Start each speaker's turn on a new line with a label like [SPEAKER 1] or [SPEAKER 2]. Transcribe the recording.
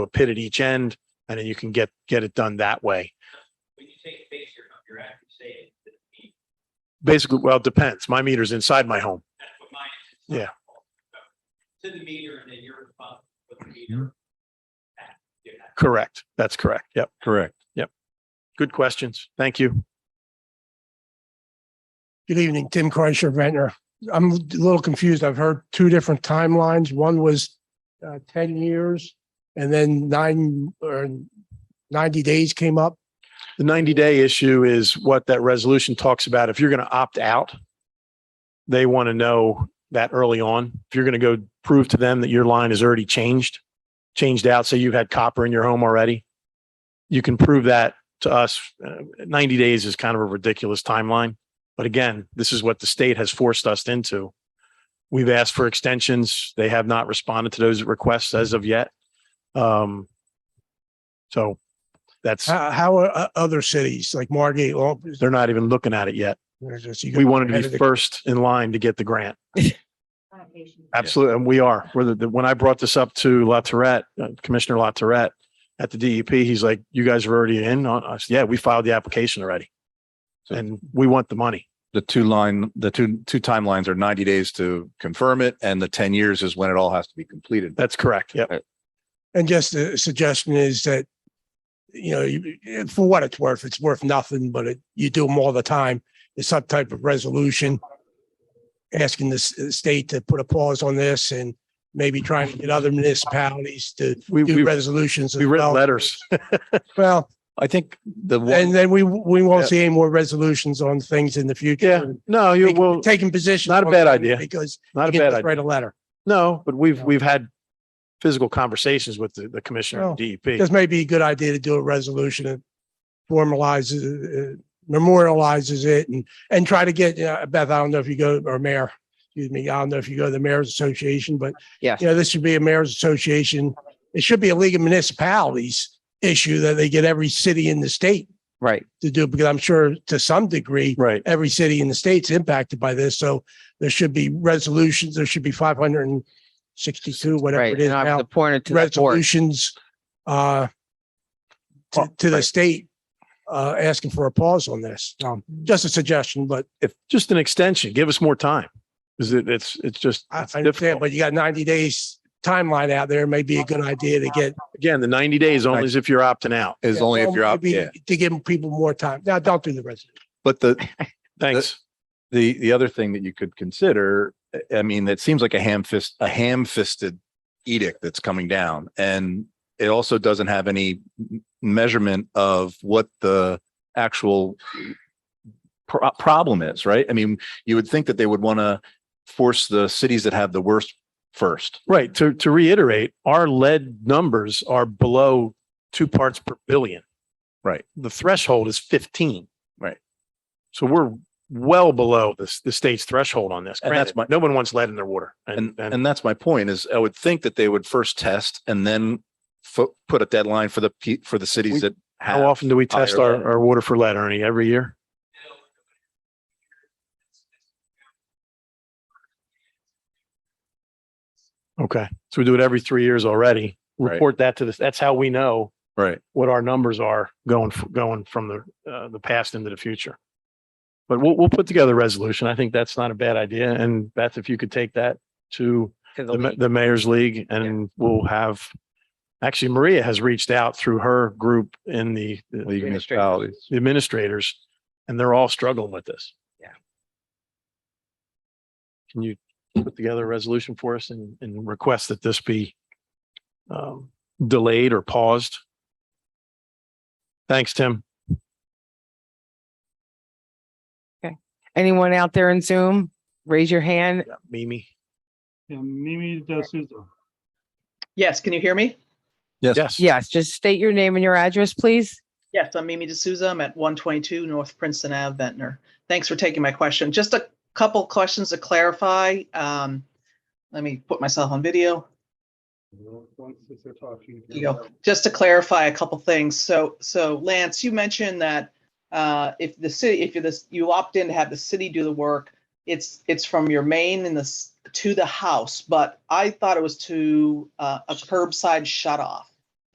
[SPEAKER 1] a pit at each end and then you can get, get it done that way.
[SPEAKER 2] When you say face your home, you're actually saying that the-
[SPEAKER 1] Basically, well, it depends. My meter's inside my home.
[SPEAKER 2] that's what mine is. It's
[SPEAKER 1] Yeah.
[SPEAKER 2] not- To the meter and then you're responsible for the meter. That- yeah, that-
[SPEAKER 1] Correct. That's correct. Yep.
[SPEAKER 3] Correct.
[SPEAKER 1] Good questions. Thank you.
[SPEAKER 4] Good evening, Tim Kreischer, Ventnor. I'm a little confused. I've heard two different timelines. One was uh, ten years and then nine or ninety days came up.
[SPEAKER 1] The ninety day issue is what that resolution talks about. If you're going to opt out, they want to know that early on. If you're going to go prove to them that your line is already changed, changed out, say you've had copper in your home already, you can prove that to us. Uh, Ninety days is kind of a ridiculous timeline. But again, this is what the state has forced us into. We've asked for extensions. They have not responded to those requests as of yet. Um, so that's.
[SPEAKER 4] How, how are uh, other cities like Margate? all-
[SPEAKER 1] They're not even looking at it yet.
[SPEAKER 4] they're just- you
[SPEAKER 1] We wanted to
[SPEAKER 4] ahead of
[SPEAKER 1] be
[SPEAKER 4] the-
[SPEAKER 1] first in line to get the grant.
[SPEAKER 5] Foundation.
[SPEAKER 1] Absolutely. And we are. We're the- the- when I brought this up to La Tourette, uh, Commissioner La Tourette at the DEP, he's like, you guys are already in on us. Yeah, we filed the application already.
[SPEAKER 3] So-
[SPEAKER 1] And we want the money.
[SPEAKER 3] The two line, the two, two timelines are ninety days to confirm it and the ten years is when it all has to be completed.
[SPEAKER 1] That's correct. Yep.
[SPEAKER 4] And just a suggestion is that, you know, you- for what it's worth, it's worth nothing, but it, you do them all the time. It's some type of resolution asking the s- state to put a pause on this and maybe trying to get other municipalities to
[SPEAKER 1] We,
[SPEAKER 4] do
[SPEAKER 1] we,
[SPEAKER 4] resolutions.
[SPEAKER 1] we
[SPEAKER 4] as
[SPEAKER 1] written
[SPEAKER 4] well.
[SPEAKER 1] letters.
[SPEAKER 4] Well,
[SPEAKER 3] I think the
[SPEAKER 4] and
[SPEAKER 3] one,
[SPEAKER 4] then we, we
[SPEAKER 1] Yeah.
[SPEAKER 4] won't see any more resolutions on things in the future.
[SPEAKER 1] Yeah, No, you will,
[SPEAKER 4] Taking- Taking positions.
[SPEAKER 1] not a
[SPEAKER 4] on
[SPEAKER 1] bad
[SPEAKER 4] things
[SPEAKER 1] idea.
[SPEAKER 4] Because
[SPEAKER 1] not
[SPEAKER 4] you
[SPEAKER 1] a
[SPEAKER 4] can
[SPEAKER 1] bad
[SPEAKER 4] just
[SPEAKER 1] idea.
[SPEAKER 4] write a letter.
[SPEAKER 1] No, but we've, we've had physical conversations with the, the commissioner E
[SPEAKER 4] Well,
[SPEAKER 1] of DEP.
[SPEAKER 4] This may be a good idea to do a resolution that formalizes, uh, memorializes it and, and try to get, uh, Beth, I don't know if you go, or mayor, excuse me, I don't know if you go to the mayor's association, but
[SPEAKER 6] Yes.
[SPEAKER 4] you know, this should be a mayor's association. It should be a league of municipalities issue that they get every city in the state
[SPEAKER 6] Right.
[SPEAKER 4] to do, because I'm sure to some degree,
[SPEAKER 1] Right.
[SPEAKER 4] every city in the state's impacted by this. So there should be resolutions. There should be five hundred and sixty-two, whatever
[SPEAKER 6] Right.
[SPEAKER 4] it is
[SPEAKER 6] And I was
[SPEAKER 4] now,
[SPEAKER 6] appointed to the board. Oh,
[SPEAKER 4] resolutions uh to, to the
[SPEAKER 6] right.
[SPEAKER 4] state uh asking for a pause on this. Um, just a suggestion, but
[SPEAKER 1] If, just an extension, give us more time. Is it, it's, it's just,
[SPEAKER 4] I
[SPEAKER 1] it's
[SPEAKER 4] I understand,
[SPEAKER 1] difficult.
[SPEAKER 4] but you got ninety days timeline out there. May be a good idea to get.
[SPEAKER 1] Again, the ninety days only is if you're opting out.
[SPEAKER 3] is only if you're up,
[SPEAKER 4] Maybe
[SPEAKER 3] yeah.
[SPEAKER 4] To give people more time. Now, don't do the rest.
[SPEAKER 3] But the,
[SPEAKER 1] Thanks.
[SPEAKER 3] the, the other thing that you could consider, I- I mean, it seems like a ham fist, a ham fisted edict that's coming down. And it also doesn't have any m- measurement of what the actual pro- problem is, right? I mean, you would think that they would want to force the cities that have the worst first.
[SPEAKER 1] Right. To, to reiterate, our lead numbers are below two parts per billion.
[SPEAKER 3] Right.
[SPEAKER 1] The threshold is 15.
[SPEAKER 3] Right.
[SPEAKER 1] So we're well below this, the state's threshold on this.
[SPEAKER 3] And that's
[SPEAKER 1] Granted,
[SPEAKER 3] my-
[SPEAKER 1] no one wants lead in their water.
[SPEAKER 3] And,
[SPEAKER 1] And, and
[SPEAKER 3] and that's my point is I would think that they would first test and then fo- put a deadline for the, pe- for the
[SPEAKER 1] We-
[SPEAKER 3] cities that have.
[SPEAKER 1] how often do we test
[SPEAKER 3] higher
[SPEAKER 1] our,
[SPEAKER 3] lead.
[SPEAKER 1] our water for lead, Ernie? Every year? Okay. So we do it every three years already.
[SPEAKER 3] Right.
[SPEAKER 1] Report that to this. That's how we know
[SPEAKER 3] Right.
[SPEAKER 1] what our numbers are going, f- going from the, uh, the past into the future. But we'll, we'll put together a resolution. I think that's not a bad idea. And Beth, if you could take that to
[SPEAKER 6] to the
[SPEAKER 1] the, ma-
[SPEAKER 6] league.
[SPEAKER 1] the mayor's league and we'll have, actually Maria has reached out through her group in the the
[SPEAKER 3] League
[SPEAKER 6] Administrative.
[SPEAKER 3] municipalities.
[SPEAKER 1] administrators and they're all struggling with this.
[SPEAKER 6] Yeah.
[SPEAKER 1] Can you put together a resolution for us and, and request that this be um, delayed or paused? Thanks, Tim.
[SPEAKER 6] Anyone out there in Zoom, raise your hand.
[SPEAKER 1] Mimi.
[SPEAKER 7] Yeah, Mimi Da Souza.
[SPEAKER 8] Yes, can you hear me?
[SPEAKER 1] Yes.
[SPEAKER 6] Yes, just state your name and your address, please.
[SPEAKER 8] Yes, I'm Mimi D'Souza. I'm at 122 North Princeton Ave, Ventnor. Thanks for taking my question. Just a couple questions to clarify. Um, Let me put myself on video. You go. Just to clarify a couple things. So, so Lance, you mentioned that uh, if the city, if you're this, you opt in to have the city do the work, it's, it's from your main and the, s- to the house, but I thought it was to uh, a curbside shut off.